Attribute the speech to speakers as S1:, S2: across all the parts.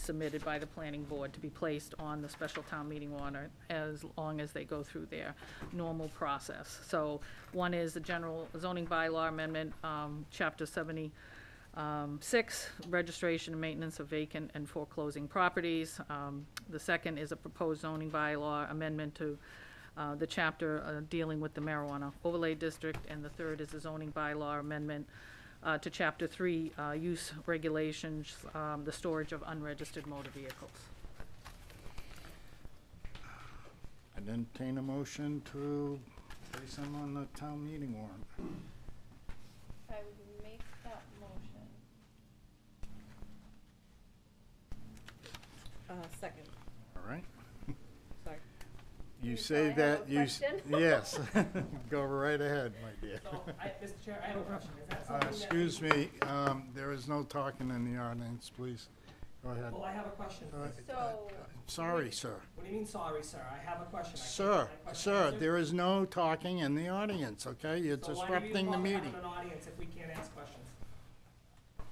S1: submitted by the planning board to be placed on the special town meeting warrant as long as they go through their normal process. So one is the general zoning bylaw amendment, um, chapter seventy, um, Six, registration and maintenance of vacant and foreclosing properties. Um, The second is a proposed zoning bylaw amendment to uh, the chapter uh, dealing with the marijuana overlay district. And the third is a zoning bylaw amendment uh, to Chapter 3, uh, use regulations, um, the storage of unregistered motor vehicles.
S2: I'd entertain a motion to place them on the town meeting warrant.
S3: I would make that motion.
S4: Uh, second,
S2: All right?
S4: sorry.
S2: You
S3: You
S2: say
S3: thought I had
S2: that,
S3: a
S2: you, s-
S3: question?
S2: yes. Go right ahead, my dear.
S5: So, I, Mr. Chair, I have a question. Is that
S2: Uh,
S5: something that?
S2: Excuse me, um, there is no talking in the audience, please. Go ahead.
S5: Well, I have a question.
S2: Uh,
S5: please.
S3: So,
S2: Sorry, sir.
S5: What do you mean, sorry, sir? I have a question. I can't-
S2: Sir,
S5: my question
S2: sir,
S5: answered?
S2: there is no talking in the audience, okay? You're
S5: So why do you
S2: disrupting the
S5: call it
S2: meeting.
S5: an audience if we can't ask questions?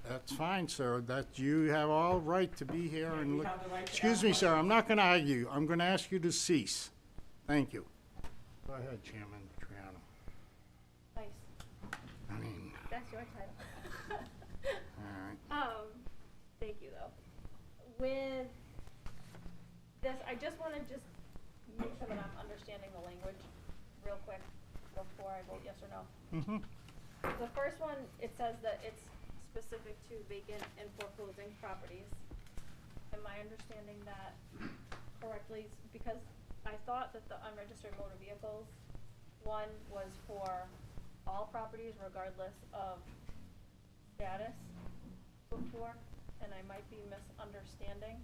S2: That's fine, sir. That, you have all right to be here and
S5: We
S2: look.
S5: have the right to
S2: Excuse
S5: ask
S2: me, sir, I'm not gonna argue. I'm gonna ask you to cease. Thank you. Go ahead, Chairman Triano.
S3: nice,
S2: I mean,
S3: that's your title.
S2: all right.
S3: Um, thank you though. With this, I just wanna just make sure that I'm understanding the language real quick before I vote yes or no.
S1: Mm-hmm.
S2: Mhm.
S3: The first one, it says that it's specific to vacant and foreclosing properties. Am I understanding that correctly? S- Because I thought that the unregistered motor vehicles, one was for all properties regardless of status before, and I might be misunderstanding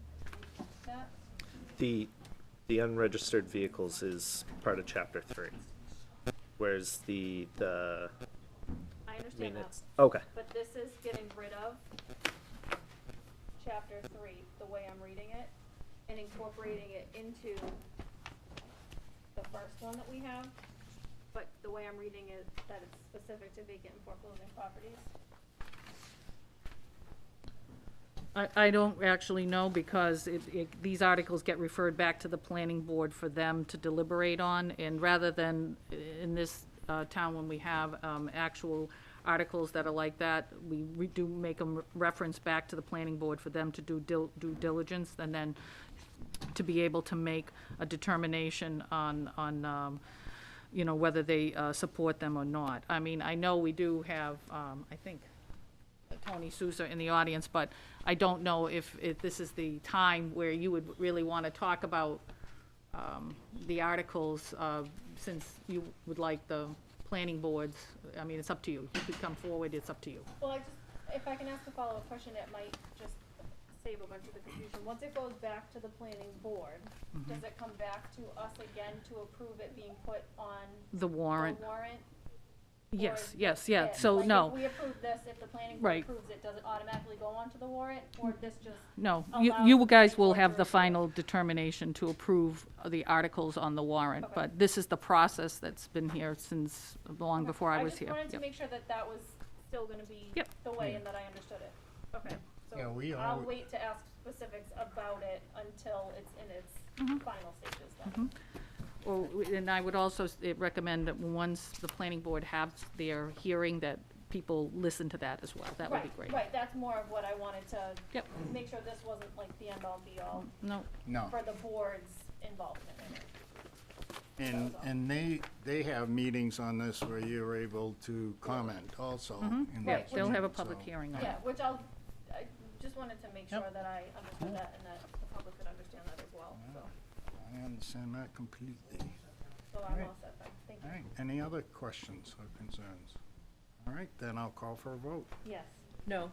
S3: that.
S6: The, the unregistered vehicles is part of chapter three, whereas the, the,
S3: I
S6: I mean,
S3: understand that.
S6: it's, okay,
S3: But this is getting rid of chapter three, the way I'm reading it, and incorporating it into the first one that we have. But the way I'm reading it, that it's specific to vacant and foreclosing properties.
S1: I, I don't actually know because it, it, these articles get referred back to the planning board for them to deliberate on. And rather than in this uh, town, when we have um, actual articles that are like that, we, we do make them reference back to the planning board for them to do dil- due diligence and then to be able to make a determination on, on, um, you know, whether they uh, support them or not. I mean, I know we do have, um, I think, Tony Souza in the audience, but I don't know if, if this is the time where you would really want to talk about um, the articles, uh, since you would like the planning boards, I mean, it's up to you. You could come forward, it's up to you.
S3: Well, I just, if I can ask a follow-up question, it might just save a bunch of the confusion. Once it goes back to the planning board, does it come back to us again to approve it being put on
S1: The
S3: the
S1: warrant,
S3: warrant?
S1: yes,
S3: or
S1: yes, yeah,
S3: it.
S1: so,
S3: Like, if
S1: no,
S3: we approve this, if the planning board
S1: Right.
S3: approves it, does it automatically go onto the warrant, or this just?
S1: no. You,
S3: allows
S1: you
S3: the
S1: guys will
S3: board to
S1: have the
S3: review it?
S1: final determination to approve the articles on the warrant,
S3: Okay.
S1: but this is the process that's been here since, long
S3: Okay.
S1: before I was here.
S3: just wanted to
S1: Yep.
S3: make sure that that was still gonna be
S1: Yep.
S3: the way and that I understood it. Okay,
S2: Yeah, we
S3: so I'll
S2: alwa-
S3: wait to ask specifics about it until it's in
S1: Mm-hmm.
S3: its final stages then.
S1: Or, and I would also s- eh, recommend that once the planning board has their hearing, that people listen to that as well. That would be
S3: Right,
S1: great.
S3: Right, that's more of what I wanted to.
S1: Yep.
S3: Make sure this wasn't like the end all be all
S1: No,
S2: No.
S3: for the board's involvement in it.
S2: And, and they, they have meetings on this where you're able to comment also. in
S1: Mm-hmm. yeah,
S2: that
S1: they'll have a
S2: meeting,
S1: public
S2: so-
S1: hearing on it.
S3: Yeah, which I'll, I just wanted to make
S2: Yep.
S3: sure that I understood that and that the public could understand that as well, so,
S2: I understand that completely.
S3: so I'm
S2: Alright.
S3: all set then, thank
S2: All
S3: you.
S2: right, any other questions or concerns? All right, then I'll call for a vote,
S3: Yes,
S4: No,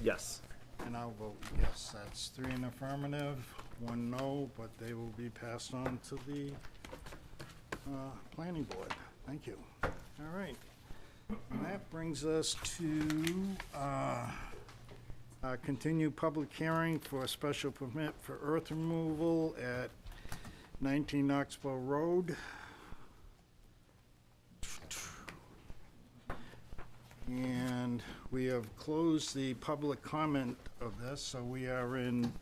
S6: yes.
S2: and I'll vote yes. That's three in affirmative, one no, but they will be passed on to the uh, planning board. Thank you. All right. And that brings us to uh, uh, continue public hearing for a special permit for earth removal at 19 Knoxville Road. And we have closed the public comment of this, so we are in